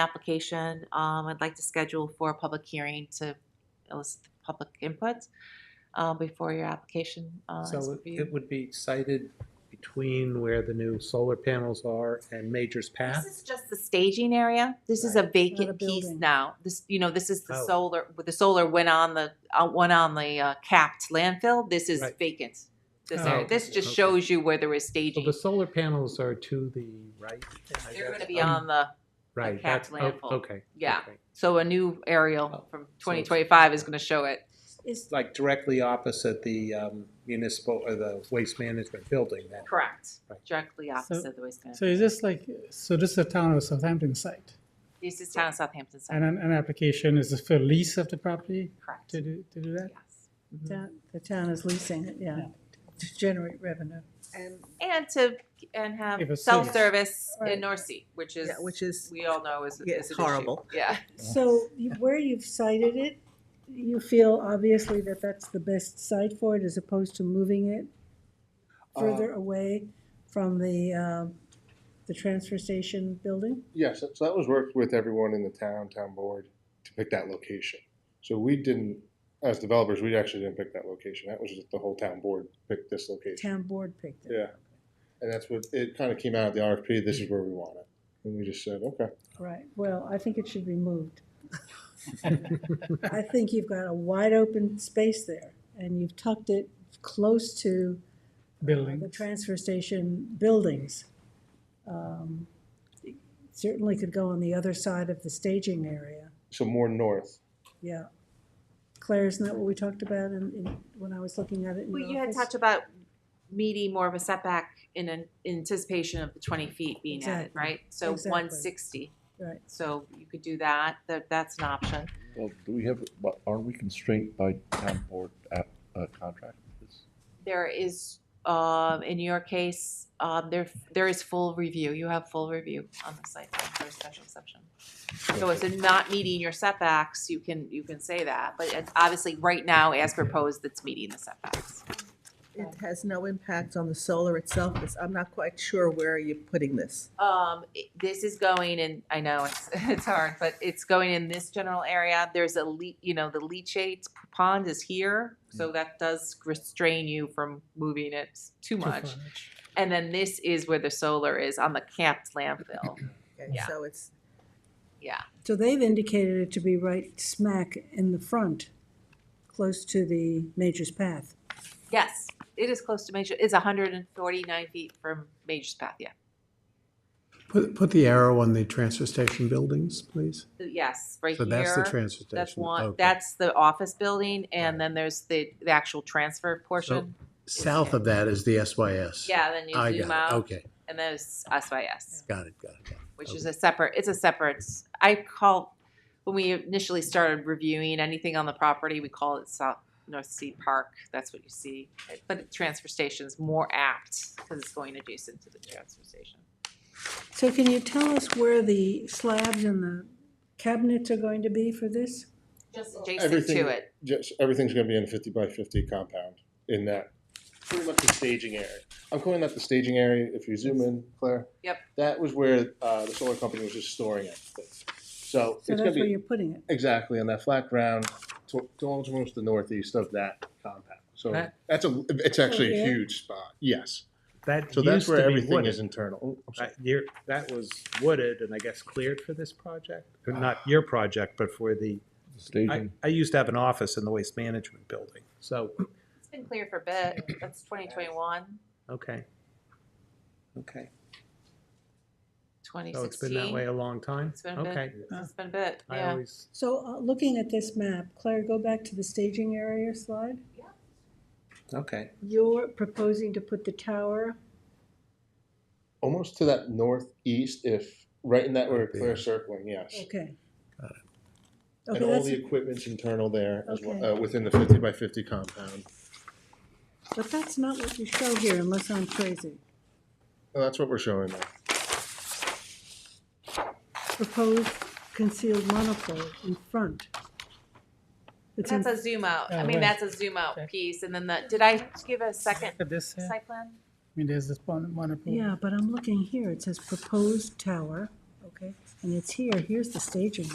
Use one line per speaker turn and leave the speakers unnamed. application, um, I'd like to schedule for a public hearing to elicit the public input, uh, before your application, uh, is
So it- it
reviewed.
would be sited between where the new solar panels are and Major's
This
Path?
is just the staging area. This is a vacant piece
building.
now. This, you know, this is the
Oh.
solar, the solar went on the, uh, went on the, uh, capped landfill. This is
Right.
vacant. This
Oh,
area, this just
okay.
shows you where there is
So
staging.
the solar panels are to the right? I
They're
guess.
gonna be on the,
Right,
capped
that's, oh,
landfill.
okay.
Yeah.
okay.
so a new aerial
Oh,
from
it's-
twenty twenty-five is gonna show it.
Is,
Like directly opposite the um, municipal, or the waste management building then?
Correct.
Right.
Directly opposite the waste
So
management.
is this like, so this is a town of Southampton site,
This is town of Southampton
and
side,
an, an application is for lease of the property
correct.
to do, to do that?
Yes.
Mm-hmm.
town- the town is leasing it, yeah,
Yeah.
to generate revenue. And,
And to, and
Give
have
us
self-service
Right.
in North Sea, which is,
Yeah, which is,
we all know is, is
Yeah,
an issue.
horrible.
Yeah.
so you- where you've cited it, you feel obviously that that's the best site for it as opposed to moving it further away from the, um, the transfer station building?
Yes, so so that was worked with everyone in the town, town board, to pick that location. So we didn't, as developers, we actually didn't pick that location. That was just the whole town board picked this location.
Town board picked it,
Yeah. And that's what, it kind of came out of the RFP, this is where we want it. And we just said, okay.
right. Well, I think it should be moved. I think you've got a wide open space there, and you've tucked it close to
Building,
the transfer station buildings. um, Certainly could go on the other side of the staging area,
So more north.
yeah. Claire, isn't that what we talked about in, in, when I was looking at it in the
Well, you had
office?
touched about meeting more of a setback in an anticipation of the twenty feet being added,
Exactly.
right? So
Exactly.
one sixty,
Right,
so you could do that, that, that's an option.
Well, do we have, but are we constrained by town board app, uh, contract with this?
There is, um, in your case, um, there, there is full review, you have full review on the site plan for a special exception. So it's in not meeting your setbacks, you can, you can say that, but it's obviously, right now, as proposed, it's meeting the setbacks.
It has no impact on the solar itself. It's- I'm not quite sure where you're putting this.
Um, it- this is going in, I know it's, it's hard, but it's going in this general area. There's a le, you know, the leachate pond is here,
Mm.
so that does restrain you from moving it too
too
much.
far.
And then this is where the solar is on the camped landfill.
Okay,
Yeah.
So it's,
Yeah,
so they've indicated it to be right smack in the front, close to the Major's Path.
yes, it is close to Major, it's hundred and forty-nine feet from Major's Path, yeah.
Put, put the arrow on the transfer station buildings, please.
Uh, Yes, right
So that's the
here,
transfer station.
that's one,
Okay.
that's the office building, and then there's the, the actual transfer portion.
South of that is the SYS.
Yeah, then
I
you zoom
got
out,
it. Okay,
and there's SYS.
got it, got it, got it.
which is a separate, it's a separate, I call, when we initially started reviewing anything on the property, we call it South North Sea Park, that's what you see. But the transfer station's more apt because it's going adjacent to the transfer station.
So can you tell us where the slabs and the cabinets are going to be for this?
Just adjacent
everything-
to it.
Just, everything's gonna be in a fifty by fifty compound in that, pretty much the staging area. I'm calling that the staging area, if you zoom in, Claire.
Yep.
That was where, uh, the solar company was just storing it. So it's
So
gonna
that's where
be
you're putting it.
Exactly, on that flat ground, to, to almost the northeast of that compound. So
That-
that's a, it's actually a
yeah.
huge spot, yes.
That
So that's
used to
where
be
everything
wooded.
is internal. Oh, I'm sorry.
That year, that was wooded and I guess cleared for this project? Or Not
Ah.
your project, but for the, I,
Mm-hmm.
Staging,
I used to have an office in the waste management building, so,
It's been clear for a bit, that's 2021,
okay. Okay, so Oh, it's been that way
2016.
a long time?
It's been a bit.
Okay,
It's been a bit,
I
yeah.
always
So, uh, looking at this map, Claire, go back to the staging area slide.
Okay.
You're proposing to put the tower,
Almost to that northeast, if, right in that where
Right there.
Claire's circling, yes.
okay.
Got
And
Okay,
all
that's,
the equipment's internal there, as well,
Okay.
uh, within the fifty by fifty compound.
but that's not what you show here unless I'm crazy.
And that's what we're showing there.
Proposed concealed manifold in front. It's in,
That's a zoom out, I
Oh,
mean,
right.
that's a zoom out
Okay.
piece, and then the, did I give a second
Look at this here, I
site plan?
mean, there's this one, one.
yeah, but I'm looking here, it says proposed tower, okay? And it's here, here's the staging